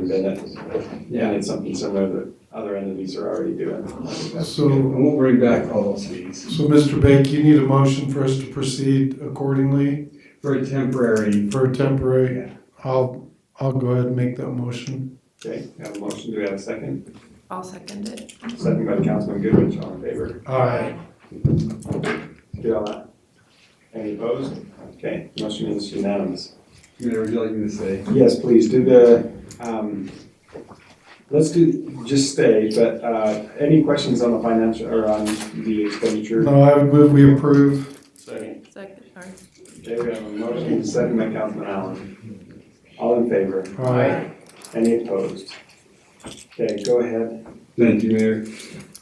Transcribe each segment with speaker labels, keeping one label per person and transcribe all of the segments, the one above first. Speaker 1: bid it.
Speaker 2: Yeah, it's something similar that other entities are already doing.
Speaker 3: So,
Speaker 1: And we'll bring back all those fees.
Speaker 3: so Mr. Bake, you need a motion for us to proceed accordingly
Speaker 1: For a temporary,
Speaker 3: for a temporary. I'll, I'll go ahead and make that motion.
Speaker 2: Okay, we have a motion, do we have a second?
Speaker 4: I'll second it.
Speaker 2: Second by Councilman Goodrich, all in favor?
Speaker 3: Aye.
Speaker 2: Get all that? Any opposed? Okay, motion is unanimous.
Speaker 1: Mayor, would you like me to say?
Speaker 2: Yes, please, do the, um, let's do, just stay, but, uh, any questions on the financial, or on the expenditure?
Speaker 3: No, I would move we approve.
Speaker 2: Second.
Speaker 4: Second, all right.
Speaker 2: Okay, we have a motion, second by Councilman Allen. All in favor?
Speaker 3: Aye.
Speaker 2: Any opposed? Okay, go ahead.
Speaker 5: Thank you, Mayor.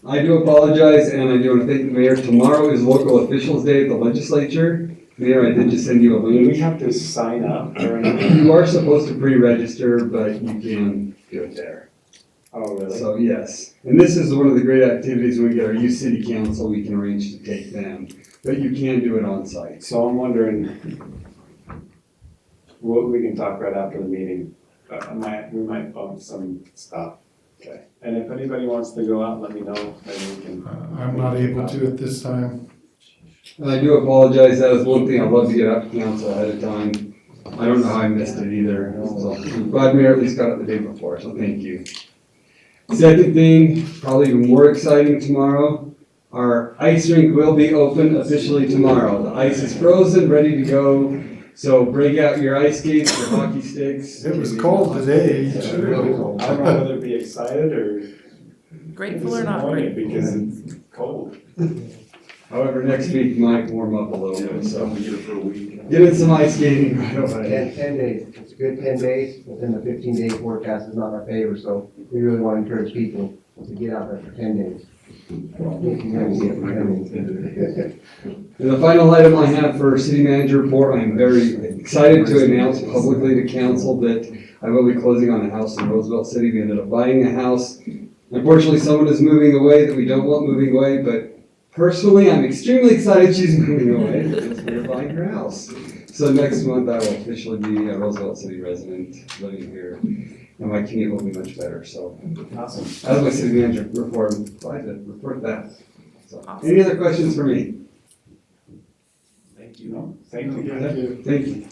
Speaker 5: I do apologize, and I do want to thank the mayor. Tomorrow is local officials day at the legislature. Mayor, I did just send you a
Speaker 2: Do we
Speaker 5: link.
Speaker 2: have to sign up or anything?
Speaker 5: You are supposed to pre-register, but you can do it there.
Speaker 2: Oh, really?
Speaker 5: So, yes. And this is one of the great activities when we get our youth city council, we can arrange to take them. But you can do it on site.
Speaker 2: So I'm wondering, what, we can talk right after the meeting, but I might, we might bump some stuff.
Speaker 5: Okay.
Speaker 2: And if anybody wants to go out, let me know, then we can.
Speaker 3: Uh, I'm not able to at this time.
Speaker 5: And I do apologize, that is one thing I'd love to get out to council ahead of time. I don't know how I missed it either, so I'm glad Mayor at least got it the day before, so thank you. Second thing, probably even more exciting tomorrow, our ice rink will be open officially tomorrow. The ice is frozen, ready to go, so break out your ice skates, your hockey sticks.
Speaker 3: It was cold today.
Speaker 5: Yeah, really
Speaker 3: sure.
Speaker 5: cold.
Speaker 2: I don't know whether to be excited or
Speaker 4: Grateful or not
Speaker 2: disappointed
Speaker 4: grateful?
Speaker 2: because it's cold.
Speaker 5: However, next week might warm up a little bit, so
Speaker 1: we get it for a week.
Speaker 5: get in some ice skating right away.
Speaker 6: Ten, ten days, it's a good ten days, within the fifteen day forecast is not in our favor, so we really want to encourage people to get out there for ten days.
Speaker 5: And the final item I have for city manager report, I am very excited to announce publicly to council that I will be closing on a house in Roosevelt City. We ended up buying a house. Unfortunately, someone is moving away that we don't want moving away, but personally, I'm extremely excited she's moving away because we are buying her house. So next month, I will officially be a Roosevelt City resident, living here, and my commute will be much better, so.
Speaker 2: Awesome.
Speaker 5: As my city manager report, I did report that. So,
Speaker 4: Awesome.
Speaker 5: Any other questions for me?
Speaker 2: Thank you. No, Thank you.
Speaker 5: Thank you.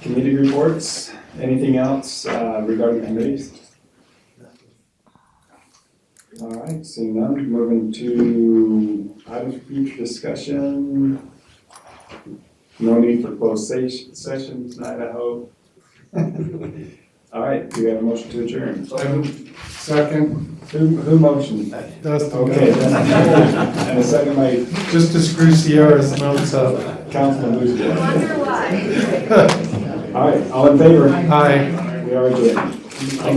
Speaker 2: Committee reports, anything else uh, regarding committees? All right, seeing none, moving to items for future discussion. No need for closed se- session tonight, I hope. All right, do we have a motion to adjourn?
Speaker 3: Second,
Speaker 2: Who, who motioned?
Speaker 3: Dustin,
Speaker 2: Okay, that's- and a second by
Speaker 3: just to screw Sierra's notes up.
Speaker 2: Councilman Booth.
Speaker 4: why.
Speaker 2: All right, all in favor?
Speaker 3: Aye.
Speaker 2: We are adjourned.